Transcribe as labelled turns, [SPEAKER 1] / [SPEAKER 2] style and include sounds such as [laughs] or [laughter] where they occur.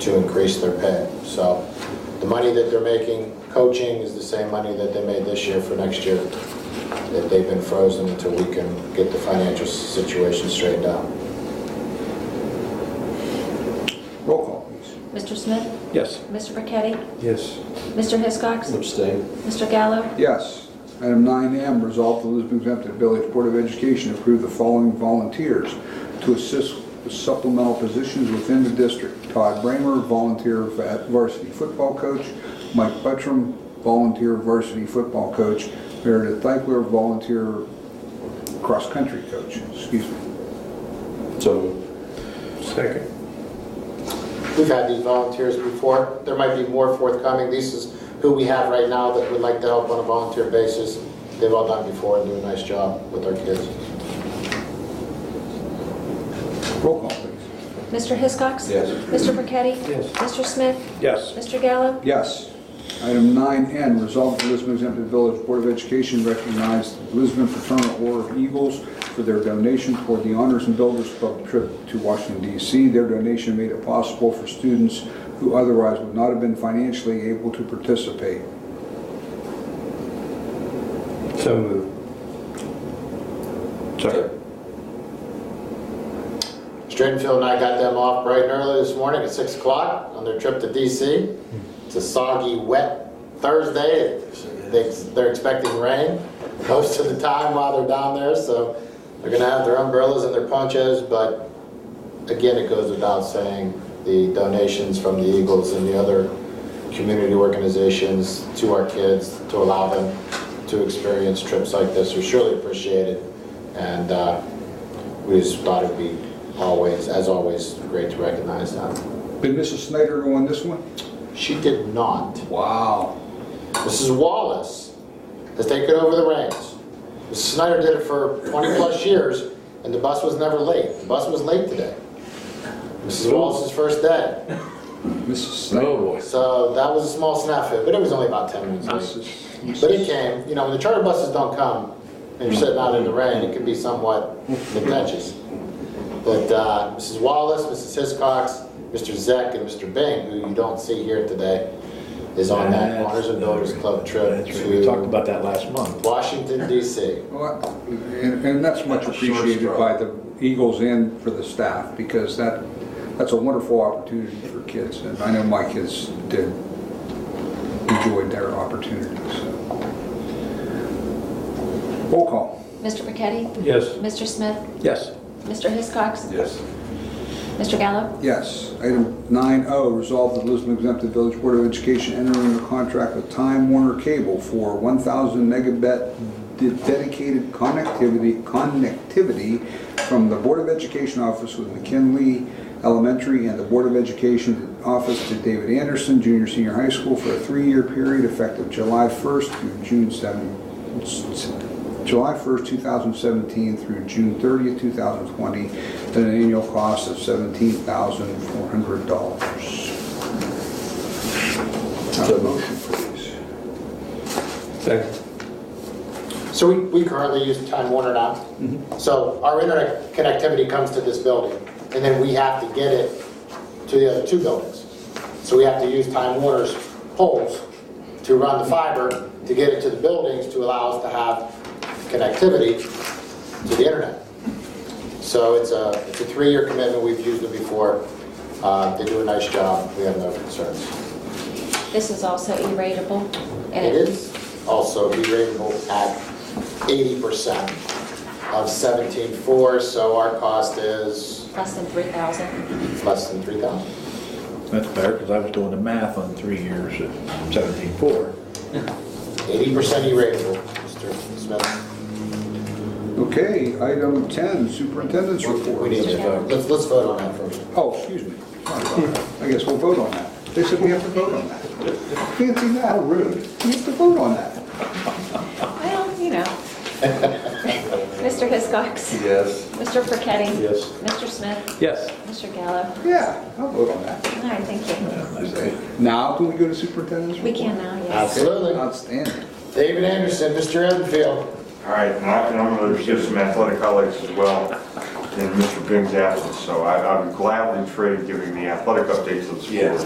[SPEAKER 1] to increase their pay. So the money that they're making coaching is the same money that they made this year for next year, that they've been frozen until we can get the financial situation straightened out.
[SPEAKER 2] Roll call, please.
[SPEAKER 3] Mr. Smith?
[SPEAKER 2] Yes.
[SPEAKER 3] Mr. Burketti?
[SPEAKER 4] Yes.
[SPEAKER 3] Mr. Hiscox?
[SPEAKER 4] Abstain.
[SPEAKER 3] Mr. Gallo?
[SPEAKER 2] Yes. Item 9M, resolve the Lisbon Exempted Village Board of Education approve the following volunteers to assist with supplemental positions within the district. Todd Bramer, volunteer va- varsity football coach. Mike Buttram, volunteer varsity football coach. Meredith Dykler, volunteer cross-country coach, excuse me.
[SPEAKER 4] So Second.
[SPEAKER 1] We've had these volunteers before. There might be more forthcoming. This is who we have right now that would like to help on a volunteer basis. They've all done before and do a nice job with our kids.
[SPEAKER 2] Roll call, please.
[SPEAKER 3] Mr. Hiscox?
[SPEAKER 4] Yes.
[SPEAKER 3] Mr. Burketti?
[SPEAKER 4] Yes.
[SPEAKER 3] Mr. Smith?
[SPEAKER 4] Yes.
[SPEAKER 3] Mr. Gallo?
[SPEAKER 2] Yes. Item 9N, resolve the Lisbon Exempted Village Board of Education recognize the Lisbon Fraternal Order of Eagles for their donation toward the Honors and Builders Club trip to Washington DC. Their donation made it possible for students who otherwise would not have been financially able to participate.
[SPEAKER 4] So moved. Second.
[SPEAKER 1] Stratenfield and I got them off bright and early this morning at 6 o'clock on their trip to DC. It's a soggy, wet Thursday. They- They're expecting rain [laughs] most of the time while they're down there, so they're going to have their umbrellas and their ponchos, but again, it goes without saying, the donations from the Eagles and the other community organizations to our kids to allow them to experience trips like this are surely appreciated. And uh, we just thought it'd be always, as always, great to recognize them.
[SPEAKER 2] Did Mrs. Snyder go on this one?
[SPEAKER 1] She did not.
[SPEAKER 2] Wow.
[SPEAKER 1] Mrs. Wallace has taken over the reins. Mrs. Snyder did it for 20-plus years, and the bus was never late. The bus was late today. Mrs. Wallace's first day.
[SPEAKER 2] Mrs. Snyder.
[SPEAKER 4] Oh, boy.
[SPEAKER 1] So that was a small snafu, but it was only about 10 minutes late.
[SPEAKER 2] Mrs.
[SPEAKER 1] But it came, you know, when the charter buses don't come and you're sitting out in the rain, it can be somewhat contentious. But uh, Mrs. Wallace, Mrs. Hiscox, Mr. Zek, and Mr. Bing, who you don't see here today, is on that Honors and Builders Club trip
[SPEAKER 4] That's right. We talked
[SPEAKER 1] to
[SPEAKER 4] about that last month.
[SPEAKER 1] Washington DC.
[SPEAKER 2] Well, And and that's much
[SPEAKER 4] Short
[SPEAKER 2] appreciated
[SPEAKER 4] straw.
[SPEAKER 2] by the Eagles and for the staff, because that, that's a wonderful opportunity for kids. And I know my kids did, enjoyed their opportunities. Roll call.
[SPEAKER 3] Mr. Burketti?
[SPEAKER 4] Yes.
[SPEAKER 3] Mr. Smith?
[SPEAKER 4] Yes.
[SPEAKER 3] Mr. Hiscox?
[SPEAKER 4] Yes.
[SPEAKER 3] Mr. Gallo?
[SPEAKER 2] Yes. Item 9O, resolve that Lisbon Exempted Village Board of Education enter into contract with Time Warner Cable for 1,000 megabit de- dedicated connectivity, connectivity from the Board of Education office with McKinley Elementary and the Board of Education office to David Anderson, junior, senior high school for a three-year period effective July 1st through June 7th, July 1st, 2017 through June 30th, 2020, at an annual cost of $17,400. Have a motion, please.
[SPEAKER 4] Second.
[SPEAKER 1] So we we currently use Time Warner now. So our internet connectivity comes to this building, and then we have to get it to the other two buildings. So we have to use Time Warner's poles to run the fiber to get it to the buildings to allow us to have connectivity to the internet. So it's a, it's a three-year commitment, we've used it before. Uh, They do a nice job, we have no concerns.
[SPEAKER 3] This is also E-ratable. and
[SPEAKER 1] It is also re-ratable at eighty percent of seventeen-four, so our cost is
[SPEAKER 3] Less than 3,000.
[SPEAKER 1] less than three thousand.
[SPEAKER 4] That's better, because I was doing the math on three years at seventeen four.
[SPEAKER 1] Eighty percent E-ratable, Mr. Smith.
[SPEAKER 2] Okay, item 10, superintendent's
[SPEAKER 1] We
[SPEAKER 2] report.
[SPEAKER 1] need to vote, let's, let's vote on that first.
[SPEAKER 2] Oh, excuse me. Sorry about that. I guess we'll vote on that. They said we have to vote on that. Fancy that. How rude. We have to vote on that.
[SPEAKER 3] Well, you know.
[SPEAKER 4] [laughs]
[SPEAKER 3] Mr. Hiscox?
[SPEAKER 4] Yes.
[SPEAKER 3] Mr. Burketti?
[SPEAKER 4] Yes.
[SPEAKER 3] Mr. Smith?
[SPEAKER 4] Yes.
[SPEAKER 3] Mr. Gallo?
[SPEAKER 2] Yeah, I'll vote on that.
[SPEAKER 3] All right, thank you.
[SPEAKER 2] Now, can we go to superintendent's?
[SPEAKER 3] We can now, yes.
[SPEAKER 1] Absolutely.
[SPEAKER 2] Outstanding.
[SPEAKER 1] David Anderson, Mr. Enfield.
[SPEAKER 5] All right, and I- and I'm going to give some athletic highlights as well. and Mr. Bing's absence, so I I would gladly trade giving the athletic updates to the
[SPEAKER 6] Yes.
[SPEAKER 5] sport